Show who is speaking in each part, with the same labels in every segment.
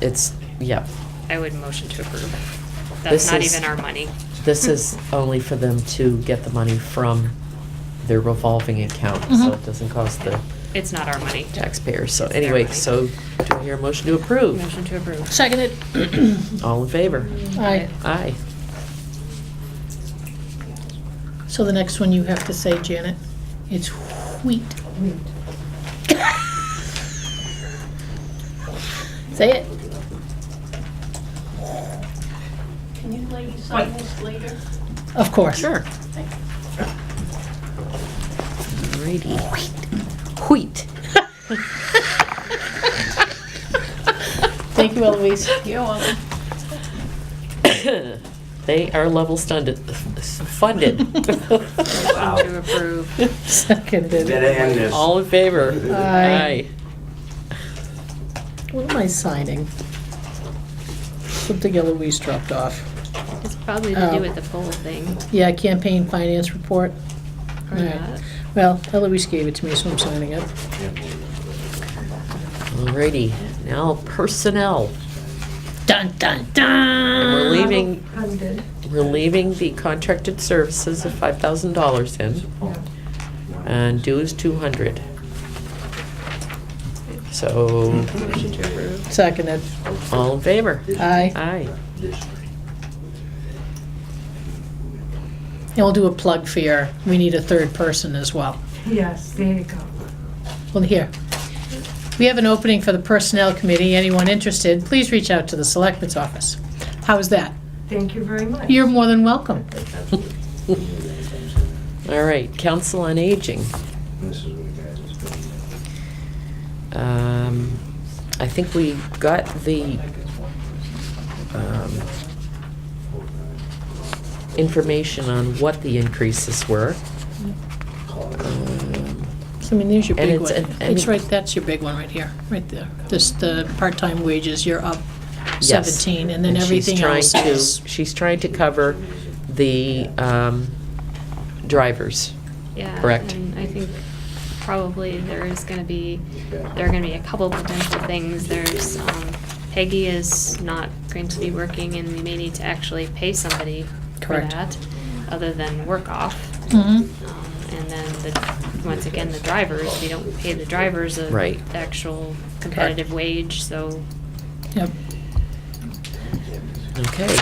Speaker 1: it's, yeah,
Speaker 2: I would motion to approve. That's
Speaker 1: This
Speaker 2: not
Speaker 1: is-
Speaker 2: even our money.
Speaker 1: this is only for them to get the money from their revolving account, so
Speaker 3: Mhm.
Speaker 1: it doesn't cost the
Speaker 2: It's not our money.
Speaker 1: taxpayers. So
Speaker 2: It's their
Speaker 1: anyway,
Speaker 2: money.
Speaker 1: so do I hear a motion to approve?
Speaker 2: Motion to approve.
Speaker 3: Seconded.
Speaker 1: All in favor?
Speaker 3: Aye.
Speaker 1: Aye.
Speaker 3: So the next one you have to say, Janet, it's wheat. Say it.
Speaker 4: Can you ladies sign this later?
Speaker 3: Of course.
Speaker 1: Alrighty.
Speaker 3: Wheat. Thank you, Eloise.
Speaker 4: You're welcome.
Speaker 1: They are level funded, funded.
Speaker 2: Motion to approve.
Speaker 3: Seconded.
Speaker 5: Did I end this?
Speaker 1: All in favor?
Speaker 3: Aye. What am I signing? Something Eloise dropped off.
Speaker 2: It's probably to
Speaker 3: Oh.
Speaker 2: do with the poll thing
Speaker 3: Yeah, campaign finance report.
Speaker 2: or
Speaker 3: All right.
Speaker 2: not.
Speaker 3: Well, Eloise gave it to me, so I'm signing it.
Speaker 1: Alrighty, now personnel.
Speaker 3: Dun, dun,
Speaker 1: And
Speaker 3: dun!
Speaker 1: We're leaving, we're leaving the contracted services of five thousand dollars in, and dues two hundred. So,
Speaker 2: Motion to approve.
Speaker 3: Seconded.
Speaker 1: all in favor?
Speaker 3: Aye.
Speaker 1: Aye.
Speaker 3: And we'll do a plug for your, we need a third person as well.
Speaker 6: Yes, there you go.
Speaker 3: Well, here. We have an opening for the Personnel Committee. Anyone interested, please reach out to the Selectmen's Office. How's that?
Speaker 6: Thank you very much.
Speaker 3: You're more than welcome.
Speaker 1: All right, Council on Aging. Um, I think we got the um, information on what the increases were. Um,
Speaker 3: So, I mean, there's your
Speaker 1: And
Speaker 3: big
Speaker 1: it's-
Speaker 3: one.
Speaker 1: and- and-
Speaker 3: It's right, that's your big one right here, right there. This, the part-time wages, you're up
Speaker 1: Yes.
Speaker 3: 17, and then
Speaker 1: she's
Speaker 3: everything
Speaker 1: trying
Speaker 3: else
Speaker 1: to-
Speaker 3: is.
Speaker 1: She's trying to cover the um, drivers.
Speaker 2: Yeah.
Speaker 1: Correct.
Speaker 2: And I think probably there is gonna be, there are gonna be a couple potential things. There's, um, Peggy is not going to be working and we may need to actually pay somebody for
Speaker 3: Correct.
Speaker 2: that, other than work off.
Speaker 3: Mhm.
Speaker 2: Um, And then the, once again, the drivers, we don't pay the drivers a
Speaker 1: Right.
Speaker 2: actual competitive wage, so
Speaker 3: Yep.
Speaker 1: Okay.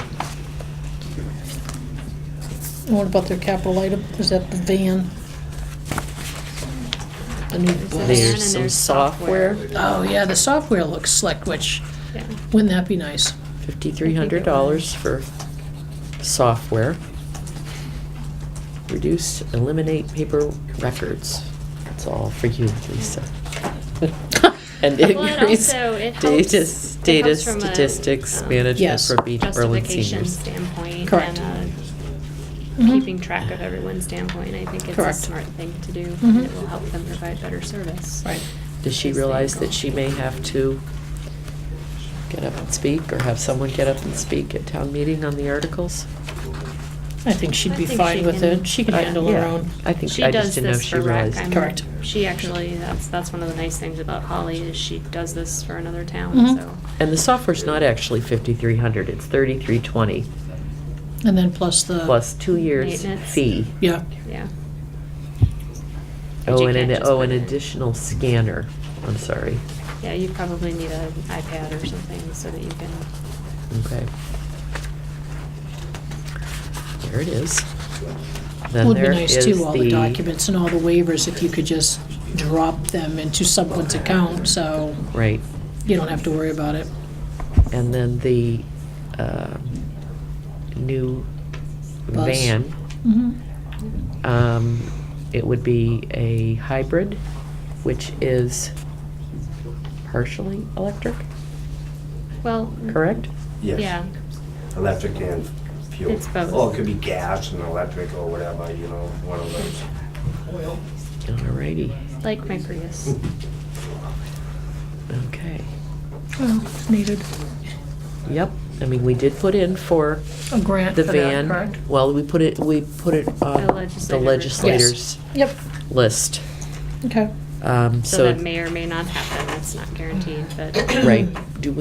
Speaker 3: And what about their capital item? Is that the van? The new
Speaker 2: Is that-
Speaker 3: bus?
Speaker 2: and
Speaker 1: There's some
Speaker 2: there's software.
Speaker 1: software,
Speaker 3: Oh, yeah, the software looks slick, which,
Speaker 2: yeah.
Speaker 3: wouldn't that be nice?
Speaker 1: $5,300 for software. Reduce, eliminate paper records. It's all for you, Lisa. And
Speaker 2: Well, it
Speaker 1: increase
Speaker 2: also- it helps-
Speaker 1: data,
Speaker 2: it
Speaker 1: data
Speaker 2: helps from a,
Speaker 1: statistics
Speaker 2: um,
Speaker 1: management
Speaker 3: Yes.
Speaker 1: for Beach Berlin
Speaker 2: Justification
Speaker 1: seniors.
Speaker 2: standpoint
Speaker 3: Correct.
Speaker 2: and uh
Speaker 3: Mhm.
Speaker 2: keeping track of everyone's standpoint, I think it's a
Speaker 3: Correct.
Speaker 2: smart thing to do.
Speaker 3: Mhm.
Speaker 2: And it will help them provide better service.
Speaker 3: Right.
Speaker 1: Does she realize that she may have to get up and speak, or have someone get up and speak at town meeting on the articles?
Speaker 3: I think she'd be
Speaker 2: I think
Speaker 3: fine
Speaker 2: she
Speaker 3: with
Speaker 2: can-
Speaker 3: it. She can
Speaker 1: I-
Speaker 3: handle her
Speaker 1: yeah,
Speaker 3: own.
Speaker 1: I think,
Speaker 2: She
Speaker 1: I just
Speaker 2: does
Speaker 1: didn't know if
Speaker 2: this
Speaker 1: she
Speaker 2: for rec.
Speaker 1: realized.
Speaker 2: I'm-
Speaker 3: Correct.
Speaker 2: She actually, that's, that's one of the nice things about Holly is she does this for another town,
Speaker 3: Mhm.
Speaker 2: so.
Speaker 1: And the software's not actually fifty-three hundred, it's thirty-three twenty,
Speaker 3: And then plus the.
Speaker 1: plus two years
Speaker 2: Maintenance.
Speaker 1: fee.
Speaker 3: Yeah,
Speaker 2: Yeah. But
Speaker 1: Oh,
Speaker 2: you
Speaker 1: and
Speaker 2: can't
Speaker 1: an,
Speaker 2: just
Speaker 1: oh,
Speaker 2: put
Speaker 1: an
Speaker 2: it in.
Speaker 1: additional scanner, I'm sorry,
Speaker 2: Yeah, you probably need an iPad or something so that you can,
Speaker 1: okay. There it is. Then
Speaker 3: would be
Speaker 1: there
Speaker 3: nice too,
Speaker 1: is
Speaker 3: all the documents and all the waivers, if you could just drop them into someone's account, so
Speaker 1: Right,
Speaker 3: you don't have to worry about it.
Speaker 1: and then the, um, new
Speaker 3: Bus.
Speaker 1: van,
Speaker 3: Mhm.
Speaker 1: um, it would be a hybrid, which is partially electric,
Speaker 2: well. mm,
Speaker 1: correct?
Speaker 5: Yes.
Speaker 2: Yeah,
Speaker 5: Electric and fuel.
Speaker 2: It's both.
Speaker 5: Or it could be gas and electric or whatever, you know, one of those.
Speaker 1: Alrighty,
Speaker 2: like my Prius.
Speaker 1: Mm-hmm. okay.
Speaker 3: Well, needed
Speaker 1: Yep, I mean, we did put in for
Speaker 3: a grant
Speaker 1: the
Speaker 3: for that,
Speaker 1: van.
Speaker 3: correct?
Speaker 1: Well, we put it, we put it on
Speaker 2: The
Speaker 1: the
Speaker 2: legislator-
Speaker 1: legislators
Speaker 3: Yep, list. okay.
Speaker 1: Um,
Speaker 2: So
Speaker 1: So,
Speaker 2: that may or may not happen, that's not guaranteed, but.
Speaker 1: right, do we